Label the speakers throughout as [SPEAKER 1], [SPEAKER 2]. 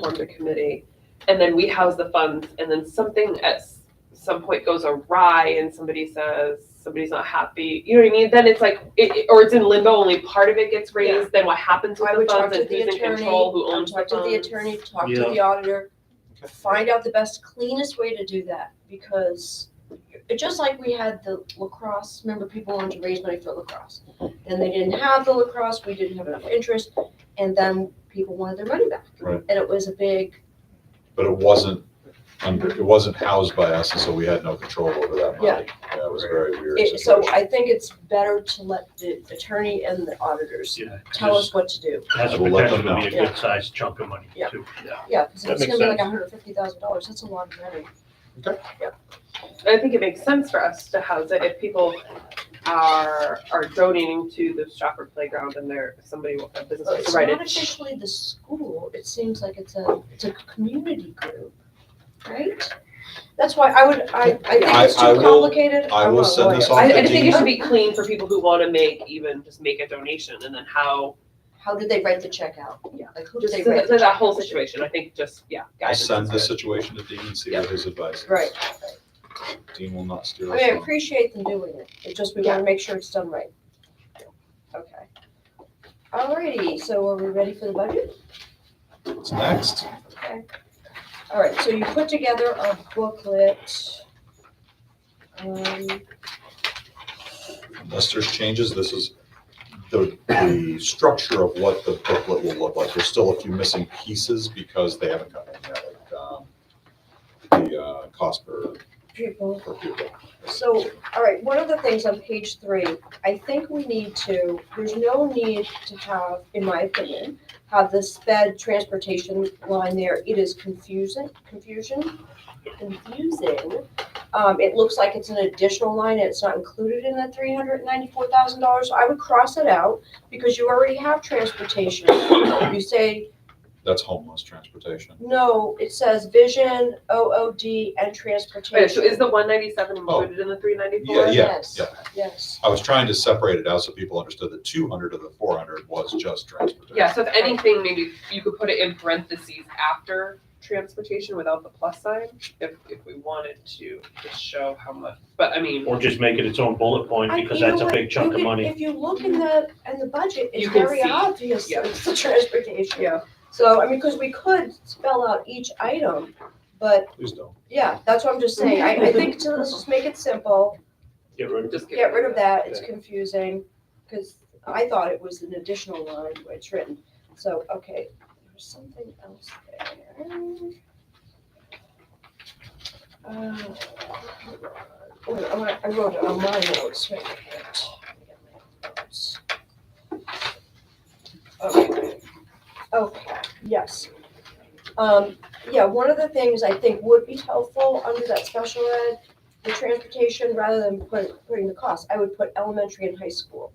[SPEAKER 1] formed a committee, and then we house the funds, and then something at s- some point goes awry, and somebody says somebody's not happy. You know what I mean? Then it's like, it, it- or it's in limbo. Only part of it gets raised. Then what happens with
[SPEAKER 2] I
[SPEAKER 1] the
[SPEAKER 2] would talk
[SPEAKER 1] funds
[SPEAKER 2] to
[SPEAKER 1] and
[SPEAKER 2] the
[SPEAKER 1] who's in
[SPEAKER 2] attorney,
[SPEAKER 1] control, who
[SPEAKER 2] I'll
[SPEAKER 1] owns
[SPEAKER 2] talk to the
[SPEAKER 1] funds?
[SPEAKER 2] attorney, talk to
[SPEAKER 3] Yeah.
[SPEAKER 2] the auditor, find out the best cleanest way to do that, because just like we had the lacrosse, remember people wanted to raise money for lacrosse. Then they didn't have the lacrosse, we didn't have enough interest, and then people wanted their money back.
[SPEAKER 4] Right.
[SPEAKER 2] And it was a big,
[SPEAKER 4] But it wasn't under, it wasn't housed by us, and so we had no control over that
[SPEAKER 2] Yeah.
[SPEAKER 4] money. Yeah, it was a very weird
[SPEAKER 2] it- so
[SPEAKER 4] situation.
[SPEAKER 2] I think it's better to let the attorney and the auditors
[SPEAKER 3] Yeah,
[SPEAKER 2] tell us
[SPEAKER 3] just
[SPEAKER 2] what to do.
[SPEAKER 3] has the
[SPEAKER 4] We'll let them
[SPEAKER 3] potential to be
[SPEAKER 2] know.
[SPEAKER 3] a good sized chunk of money
[SPEAKER 2] Yeah.
[SPEAKER 3] too.
[SPEAKER 2] Yeah, because
[SPEAKER 3] That
[SPEAKER 2] it's
[SPEAKER 3] makes
[SPEAKER 2] gonna be like
[SPEAKER 3] sense.
[SPEAKER 2] hundred fifty thousand dollars, that's a lot of money.
[SPEAKER 1] I think it makes sense for us to house it if people are are donating to the Stratford playground and there somebody will a business
[SPEAKER 2] Well,
[SPEAKER 1] will
[SPEAKER 2] It's
[SPEAKER 1] write
[SPEAKER 2] not
[SPEAKER 1] it.
[SPEAKER 2] officially the school, it seems like it's a, it's a community group, right? That's why I would, I, I think
[SPEAKER 4] I-
[SPEAKER 2] it's
[SPEAKER 4] I
[SPEAKER 2] too
[SPEAKER 4] will-
[SPEAKER 2] complicated.
[SPEAKER 4] I
[SPEAKER 2] I'm
[SPEAKER 4] will
[SPEAKER 2] not a
[SPEAKER 4] send this
[SPEAKER 2] lawyer.
[SPEAKER 4] off
[SPEAKER 1] I,
[SPEAKER 4] to
[SPEAKER 1] I think
[SPEAKER 4] Dean.
[SPEAKER 1] it should be clean for people who want to make even just make a donation and then how
[SPEAKER 2] How did they write the check out?
[SPEAKER 1] Yeah.
[SPEAKER 2] Like who did
[SPEAKER 1] just
[SPEAKER 2] they
[SPEAKER 1] so
[SPEAKER 2] write?
[SPEAKER 1] that,
[SPEAKER 2] the
[SPEAKER 1] so that
[SPEAKER 2] check
[SPEAKER 1] whole
[SPEAKER 2] out to?
[SPEAKER 1] situation. I think just yeah.
[SPEAKER 4] I'll
[SPEAKER 1] guidance
[SPEAKER 4] send
[SPEAKER 1] is
[SPEAKER 4] the
[SPEAKER 1] good.
[SPEAKER 4] situation to Dean and see what his advice is.
[SPEAKER 2] Right,
[SPEAKER 4] Dean will not
[SPEAKER 2] I
[SPEAKER 4] steer
[SPEAKER 2] mean,
[SPEAKER 4] us
[SPEAKER 2] I
[SPEAKER 4] wrong.
[SPEAKER 2] appreciate them doing it, it just, we wanna make sure it's done right. Okay. Alrighty, so are we ready for the budget?
[SPEAKER 4] What's next?
[SPEAKER 2] Alright, so you put together a booklet. Um,
[SPEAKER 4] Unless there's changes, this is the, the structure of what the booklet will look like. There's still a few missing pieces because they haven't come in yet, like, um, the, uh, cost per,
[SPEAKER 2] people.
[SPEAKER 4] per pupil.
[SPEAKER 2] So, all right, one of the things on page three, I think we need to, there's no need to have, in my opinion, have the sped transportation line there. It is confusing, confusion, confusing. Um, it looks like it's an additional line and it's not included in the three hundred and ninety-four thousand dollars. I would cross it out because you already have transportation. You say,
[SPEAKER 4] That's homeless transportation.
[SPEAKER 2] no, it says vision, OOD, and
[SPEAKER 1] Wait, so
[SPEAKER 2] transportation.
[SPEAKER 1] is the one ninety seven included in the three ninety four?
[SPEAKER 4] Oh. Yeah, yeah,
[SPEAKER 2] Yes,
[SPEAKER 4] yeah.
[SPEAKER 2] Yes.
[SPEAKER 4] I was trying to separate it out so people understood that two hundred of the four hundred was just transportation.
[SPEAKER 1] Yeah, so if anything, maybe you could put it in parentheses after transportation without the plus sign, if, if we wanted to, just show how much, but I mean,
[SPEAKER 3] Or just make it its own bullet point
[SPEAKER 2] I-
[SPEAKER 3] because
[SPEAKER 2] you know
[SPEAKER 3] that's a
[SPEAKER 2] what?
[SPEAKER 3] big chunk
[SPEAKER 2] You
[SPEAKER 3] of
[SPEAKER 2] can-
[SPEAKER 3] money.
[SPEAKER 2] If you look in the, in the budget, it's
[SPEAKER 1] You can
[SPEAKER 2] very
[SPEAKER 1] see.
[SPEAKER 2] obvious,
[SPEAKER 1] Yeah.
[SPEAKER 2] that it's the transportation.
[SPEAKER 1] yeah,
[SPEAKER 2] So, I mean, because we could spell out each item, but
[SPEAKER 4] Please don't.
[SPEAKER 2] yeah, that's what I'm just saying. I, I think to, let's just make it simple,
[SPEAKER 3] Get rid of
[SPEAKER 1] just
[SPEAKER 2] get rid of that, it's confusing. Because I thought it was an additional line where it's written. So, okay, there's something else there. Uh, wait, I wa- I wrote it on my notes. wait, wait, wait. Let me get my notes. Okay, Okay. yes. Um, yeah, one of the things I think would be helpful under that special ed, the transportation, rather than put, putting the cost, I would put elementary and high school.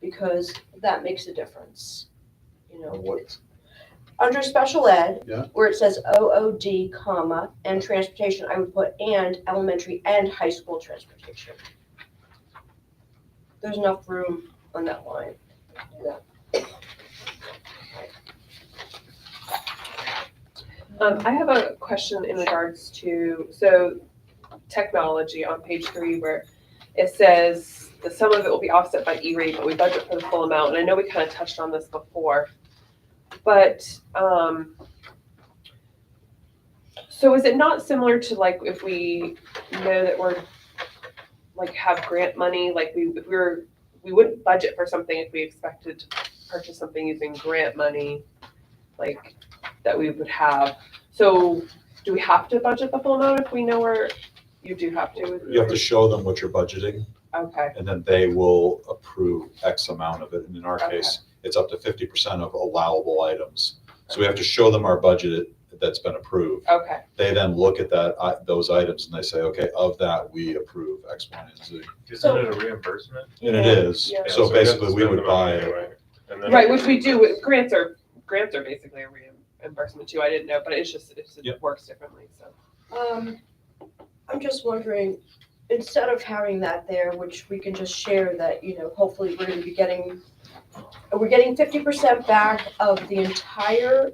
[SPEAKER 2] Because that makes a difference, you know.
[SPEAKER 4] What-
[SPEAKER 2] it's- Under special ed.
[SPEAKER 4] Yeah.
[SPEAKER 2] Where it says OOD, comma, and transportation, I would put and elementary and high school transportation. There's enough room on that line.
[SPEAKER 1] Um, I have a question in regards to, so technology on page three where it says the sum of it will be offset by E-rate, but we budget for the full amount, and I know we kind of touched on this before. But, um, so is it not similar to like if we know that we're, like have grant money, like we, if we were, we wouldn't budget for something if we expected to purchase something using grant money, like that we would have. So do we have to budget the full amount if we know where, you do have to?
[SPEAKER 4] You have to show them what you're budgeting,
[SPEAKER 1] Okay,
[SPEAKER 4] and then they will approve X amount of it. And in our case, it's up to fifty percent of allowable items. So we have to show them our budget that's been approved.
[SPEAKER 1] okay,
[SPEAKER 4] They then look at that, i- those items, and they say, okay, of that, we approve X, Y, and Z.
[SPEAKER 5] Isn't
[SPEAKER 2] So-
[SPEAKER 5] it a reimbursement?
[SPEAKER 4] And it is.
[SPEAKER 1] Yeah.
[SPEAKER 5] we
[SPEAKER 4] So
[SPEAKER 5] have to
[SPEAKER 4] basically, we
[SPEAKER 5] spend
[SPEAKER 4] would
[SPEAKER 5] the
[SPEAKER 4] buy
[SPEAKER 5] money
[SPEAKER 4] it.
[SPEAKER 5] anyway, and then-
[SPEAKER 1] right, which we do, with- grants are, grants are basically a reimbursement too, I didn't know, but it's just, it's- it
[SPEAKER 4] Yep.
[SPEAKER 1] works differently, so.
[SPEAKER 2] Um, I'm just wondering, instead of having that there, which we can just share that, you know, hopefully we're gonna be getting, we're getting fifty percent back of the entire